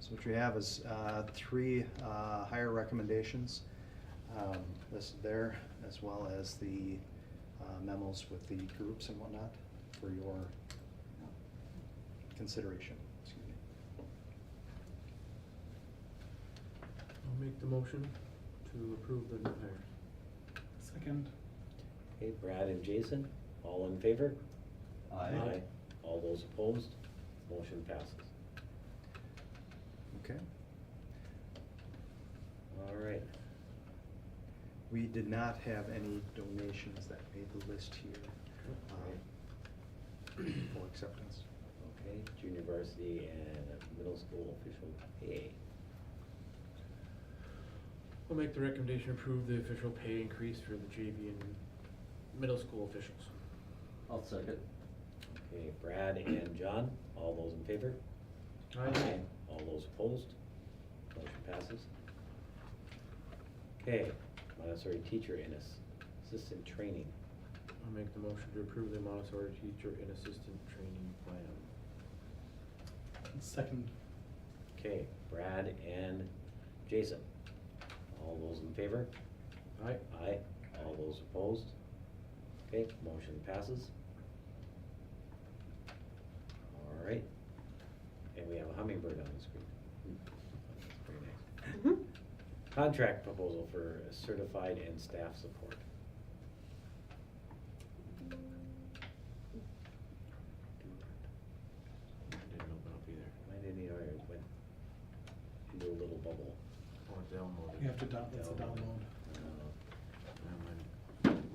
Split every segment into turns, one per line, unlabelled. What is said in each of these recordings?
So what you have is uh, three uh, higher recommendations. Um, This there, as well as the uh, memos with the groups and whatnot for your consideration. Excuse me.
I'll make the motion to approve the new hires.
Second.
Okay, Brad and Jason, all in favor?
Aye.
All those opposed? Motion passes.
Okay.
All right.
We did not have any donations that made the list here um, for acceptance.
Okay, junior varsity and middle school official pay.
I'll make the recommendation to approve the official pay increase for the JV and middle school officials.
I'll second.
Okay, Brad and John, all those in favor? All those opposed? Motion passes. Okay, Montessori teacher and ass- assistant training.
I'll make the motion to approve the Montessori teacher and assistant training plan.
Second.
Okay, Brad and Jason, all those in favor?
Aye.
Aye, all those opposed? Okay, motion passes. All right, and we have a hummingbird on the screen. Hmm, That's pretty nice. Contract proposal for certified and staff support.
Didn't open up either.
Why didn't he already went into a little bubble?
Or Oh, download it.
You have to down, that's a download.
I don't know.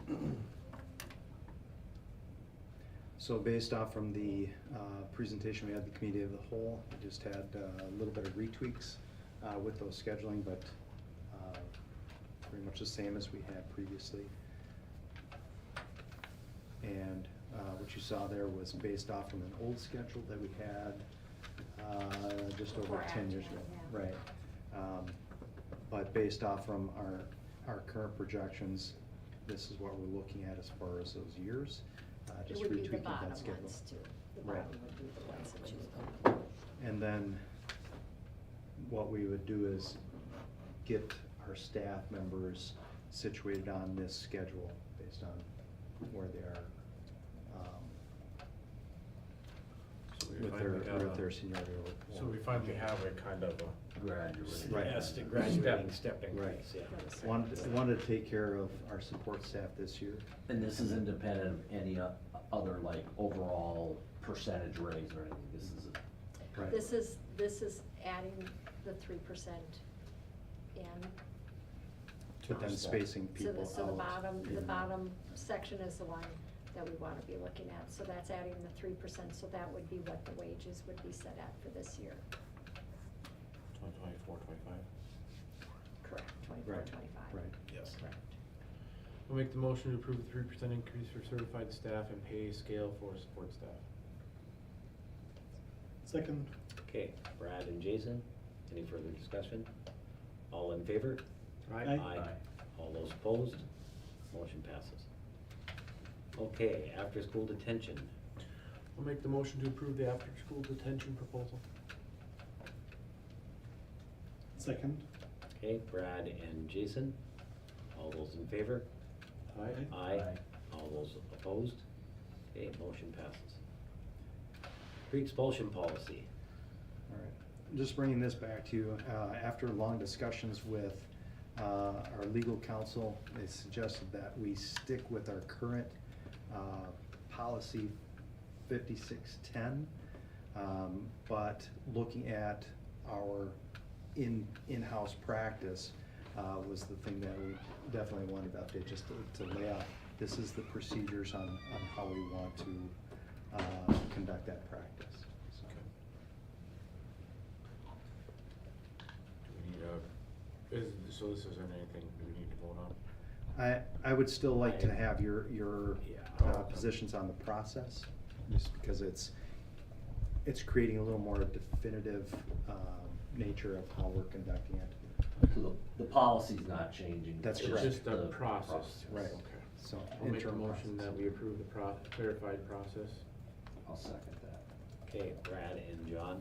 Never mind.
So based off from the uh, presentation we had, at the committee of the whole, we just had uh, a little bit of retweaks uh, with those scheduling, but uh, pretty much the same as we had previously. And uh, what you saw there was based off from an old schedule that we had uh, just over
Before
ten years ago.
Agilent, yeah.
Right. Um, But based off from our, our current projections, this is what we're looking at as far as those years. uh,
It
just
would be the
retweaking that
bottom
schedule.
ones too. The
Right.
bottom would be the ones that you would go.
And then what we would do is get our staff members situated on this schedule based on where they are. um,
So we
With their,
finally got
with
a-
their seniority. or-
So we finally have a kind of
Graduated.
Right.
Yes, the Uh, graduating step
Right.
increase, yeah.
Right.
Wanted, wanted to take care of our support staff this year.
And this is independent of any o- other like overall percentage raise or anything, this is,
Right.
This is, this is adding the three percent in.
But then spacing
So
people
the,
out.
so the bottom, the
in-
bottom section is the one that we wanna be looking at, so that's adding the three percent, so that would be what the wages would be set at for this year.
Twenty twenty-four, twenty-five.
Correct, twenty-four,
Right,
twenty-five.
right.
Yes.
Correct.
I'll make the motion to approve the three percent increase for certified staff and pay scale for support staff.
Second.
Okay, Brad and Jason, any further discussion? All in favor?
Aye.
All those opposed? Motion passes. Okay, after-school detention.
I'll make the motion to approve the after-school detention proposal.
Second.
Okay, Brad and Jason, all those in favor?
Aye.
Aye.
Aye.
All those opposed? Okay, motion passes. Pre-expulsion policy.
All right, just bringing this back to you, uh, after long discussions with, uh, our legal counsel, they suggested that we stick with our current, uh, policy fifty-six-ten. Um, but looking at our in, in-house practice, uh, was the thing that we definitely wanted to update, just to, to lay out, this is the procedures on, on how we want to, uh, conduct that practice, so.
Do we need a, is, so this isn't anything we need to vote on?
I, I would still like to have your, your
Yeah.
Oh,
uh, positions on the process, just because it's, it's creating a little more definitive um, nature of how we're conducting it,
so the, the policy's not changing.
That's
it's
correct.
It's just a process.
right?
Okay.
So.
I'll make a
interim
motion
process.
that we approve the pro, clarified process.
I'll second that.
Okay, Brad and John,